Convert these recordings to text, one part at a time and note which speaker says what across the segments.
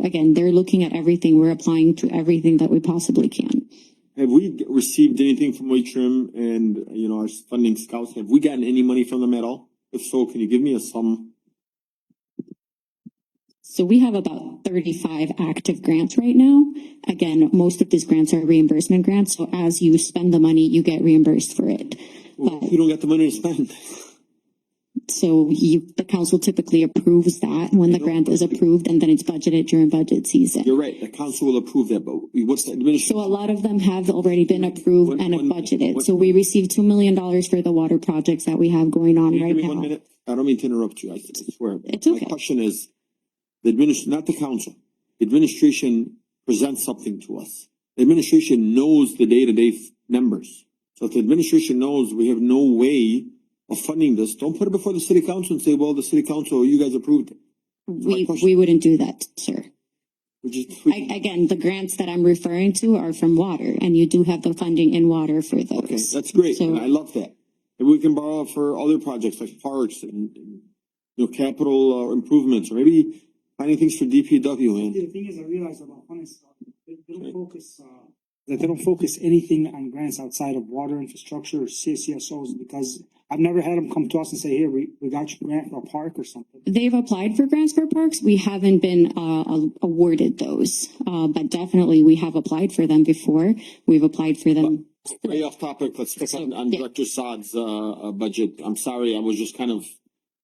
Speaker 1: Again, they're looking at everything. We're applying to everything that we possibly can.
Speaker 2: Have we g- received anything from White Trim and, you know, our funding scouts? Have we gotten any money from them at all? If so, can you give me a sum?
Speaker 1: So we have about thirty-five active grants right now. Again, most of these grants are reimbursement grants, so as you spend the money, you get reimbursed for it. But
Speaker 2: We don't got the money to spend.
Speaker 1: So you, the council typically approves that when the grant is approved and then it's budgeted during budget season.
Speaker 2: You're right, the council will approve that, but we- what's the administration?
Speaker 1: So a lot of them have already been approved and
Speaker 2: One- one-
Speaker 1: budgeted. So we received two million dollars for the water projects that we have going on
Speaker 2: Can you
Speaker 1: right
Speaker 2: give me one
Speaker 1: now.
Speaker 2: minute? I don't mean to interrupt you, I s- I swear.
Speaker 1: It's
Speaker 2: My
Speaker 1: okay.
Speaker 2: question is, the adminis, not the council, The administration presents something to us. The Administration knows the day-to-day f- numbers. So if the administration knows we have no way of funding this, don't put it before the city council and say, well, the city council, you guys approved it.
Speaker 1: We,
Speaker 2: question.
Speaker 1: we wouldn't do that, sir.
Speaker 2: We just- we-
Speaker 1: I, again, the grants that I'm referring to are from water and you do have the funding in water for
Speaker 2: Okay,
Speaker 1: those.
Speaker 2: that's great,
Speaker 1: So-
Speaker 2: and I love that. And we can borrow for other projects like parks and, and, you know, capital uh, improvements, or maybe finding things for DPW and.
Speaker 3: The thing is, I realized about Honest, they they
Speaker 4: Hmm.
Speaker 3: don't focus, uh, that they don't focus anything on grants outside of water infrastructure or CCSOs because I've never had them come to us and say, here, we, we got your grant for a park or something.
Speaker 1: They've applied for grants for parks. We haven't been uh, a- awarded those, uh, but definitely we have applied for them before. We've applied for them.
Speaker 2: Way off topic, let's pick on, on
Speaker 1: Yeah.
Speaker 2: Director Saad's, uh, uh, budget. I'm sorry, I was just kind of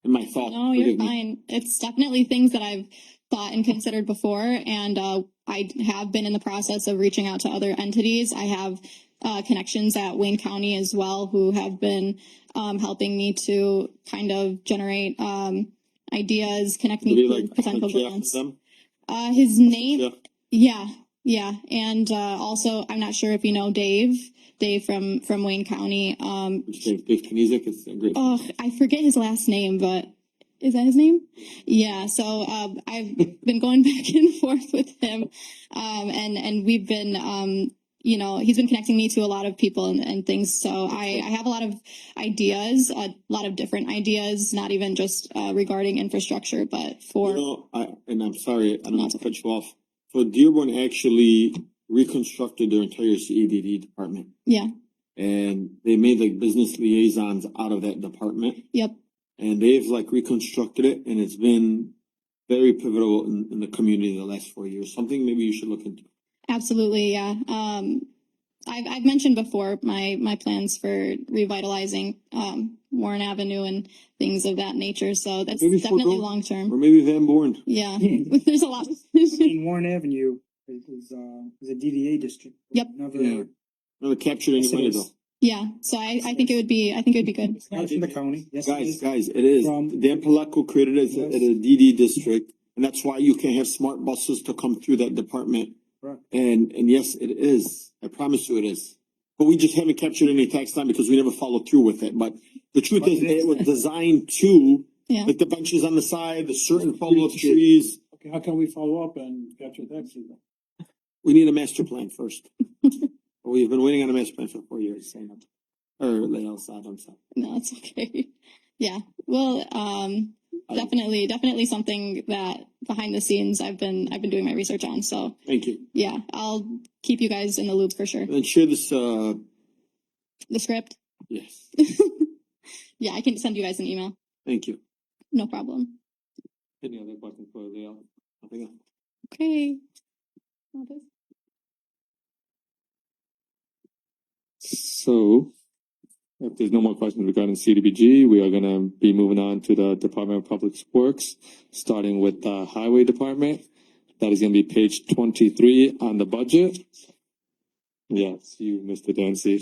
Speaker 2: in my thought.
Speaker 4: No, Oh, you're
Speaker 2: forgive me.
Speaker 4: fine. It's definitely things that I've thought and considered before, and uh, I have been in the process of reaching out to other entities. I have uh, connections at Wayne County as well who have been um, helping me to kind of generate um, ideas, connect
Speaker 2: It'll be
Speaker 4: me to
Speaker 2: like,
Speaker 4: potential
Speaker 2: Jeff and
Speaker 4: grants.
Speaker 2: them.
Speaker 4: Uh, his name,
Speaker 2: Jeff,
Speaker 4: yeah, yeah, and uh, also I'm not sure if you know Dave, Dave from from Wayne County. Um,
Speaker 2: which Dave, Dave Kinesic is a great.
Speaker 4: Oh, I forget his last name, but is that his name? Yeah. So um, I've been going back and forth with him, um, and and we've been, um, you know, he's been connecting me to a lot of people and, and things. So I, I have a lot of ideas, a lot of different ideas, not even just uh, regarding infrastructure, but
Speaker 2: You
Speaker 4: for
Speaker 2: know, I, and I'm sorry, I don't mean
Speaker 4: Not
Speaker 2: to cut you off. So Dearborn actually reconstructed their entire CEDD department.
Speaker 4: yeah,
Speaker 2: And they made like business liaisons out of that department.
Speaker 4: yep,
Speaker 2: And they've like reconstructed it and it's been very pivotal in, in the community in the last four years. Something maybe you should look into.
Speaker 4: absolutely, yeah. Um, I've I've mentioned before my my plans for revitalizing um, Warren Avenue and things of that nature. So that's
Speaker 2: Maybe forego-
Speaker 4: definitely long term.
Speaker 2: Or maybe Van Born.
Speaker 4: Yeah,
Speaker 3: In
Speaker 4: there's a lot.
Speaker 3: Warren Avenue is, is, uh, is a DDA district.
Speaker 4: Yep.
Speaker 3: Never-
Speaker 2: Yeah. Never captured any
Speaker 3: Yes, it
Speaker 2: money
Speaker 3: is.
Speaker 2: though.
Speaker 4: yeah, so I I think it would be I think it'd be good.
Speaker 3: It's not from the county. Yes, it
Speaker 2: Guys,
Speaker 3: is.
Speaker 2: guys, it is.
Speaker 3: From-
Speaker 2: Dan Palaco created it as a,
Speaker 3: Yes.
Speaker 2: as a DD district, and that's why you can have smart buses to come through that department.
Speaker 3: Correct.
Speaker 2: And, and yes, it is. I promise you it is. But we just haven't captured any tax time because we never followed through with it. But the truth is, it was designed to,
Speaker 4: Yeah.
Speaker 2: like the benches on the side, the certain follow-up trees.
Speaker 3: Okay, how can we follow up and capture that? signal?
Speaker 2: We need a master plan first. We've been waiting on a master plan for four years, saying, or, I'm sorry.
Speaker 4: No, it's okay. Yeah, well, um,
Speaker 2: I-
Speaker 4: definitely definitely something that behind the scenes I've been I've been doing my research on. So
Speaker 2: Thank you.
Speaker 4: yeah, I'll keep you guys in the loop for sure.
Speaker 2: And then share this, uh,
Speaker 4: The script.
Speaker 2: yes,
Speaker 4: yeah, I can send you guys an email.
Speaker 2: thank you.
Speaker 4: No problem.
Speaker 2: Any other button for the, uh, nothing else?
Speaker 4: Okay. All this.
Speaker 5: So, if there's no more questions regarding CDBG, we are gonna be moving on to the Department of Public Works, starting with the Highway Department. That is gonna be page twenty-three on the budget. Yes, you, Mr. Dancy.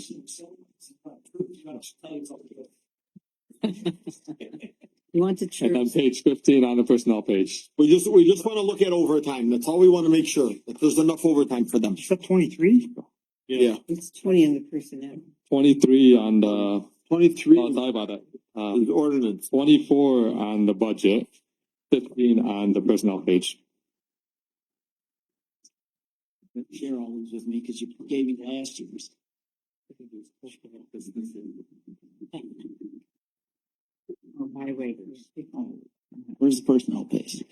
Speaker 6: You want to chirp?
Speaker 5: And on page fifteen on the personnel page.
Speaker 2: We just, we just wanna look at overtime, that's all we wanna make sure, that there's enough overtime for them.
Speaker 3: Is that twenty-three?
Speaker 2: Yeah.
Speaker 6: It's twenty on the personnel.
Speaker 5: Twenty-three on the, oh,
Speaker 2: Twenty-three
Speaker 5: sorry about that. Uh,
Speaker 2: is ordinance,
Speaker 5: twenty-four on the budget, fifteen on the personnel page.
Speaker 7: share all these with me because you gave me last year's.
Speaker 6: Oh, highway. Oh,
Speaker 7: Where's the personnel page?